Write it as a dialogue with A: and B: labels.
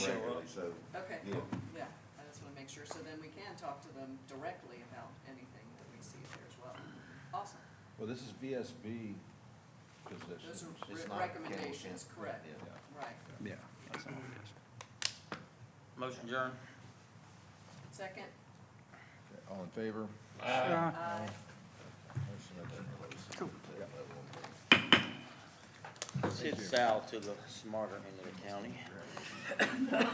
A: so,
B: Okay,
A: yeah.
B: yeah, I just wanna make sure, so then we can talk to them directly about anything that we see there as well. Awesome,
C: Well, this is VSB
B: those
C: positions.
B: are
A: It's
B: re-
A: not
B: recommendations,
A: Campbell,
B: correct,
A: yeah.
B: right.
D: Yeah, that's all it is.
E: Motion adjourned.
B: Second,
C: Okay, All in favor?
D: Ah.
B: uh,
C: Motion adjourned.
E: Send Sal to the smarter end of the county.